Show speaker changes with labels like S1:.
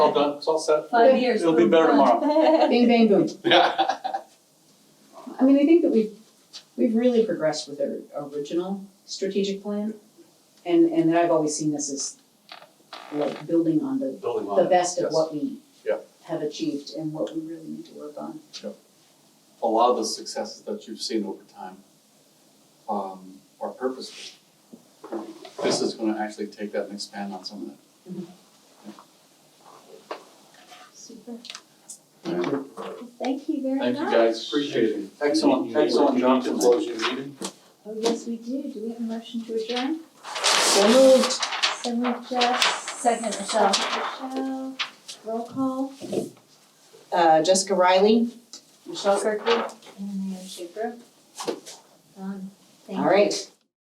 S1: all done, it's all set.
S2: Five years.
S1: It'll be better tomorrow.
S3: Bing, bang, boom.
S1: Yeah.
S3: I mean, I think that we've, we've really progressed with our original strategic plan. And, and I've always seen this as like building on the,
S1: Building on
S3: the
S1: it,
S3: best of
S1: yes.
S3: what we
S1: Yeah.
S3: have achieved and what we really need to work on.
S1: A lot of the successes that you've seen over time um are purposeful. This is gonna actually take that and expand on some of that.
S4: Super.
S1: Thank you.
S4: Thank you very much.
S1: Thank you guys, appreciate it. Excellent, excellent job tonight.
S4: Oh, yes, we do. Do we have a motion to adjourn?
S3: So moved.
S4: So moved, Jess.
S2: Second, Michelle.
S4: Michelle. Roll call.
S3: Uh, Jessica Riley. Michelle Kirkwood.
S4: And Mayor Schaefer. Done. Thank
S3: All
S4: you.
S3: right.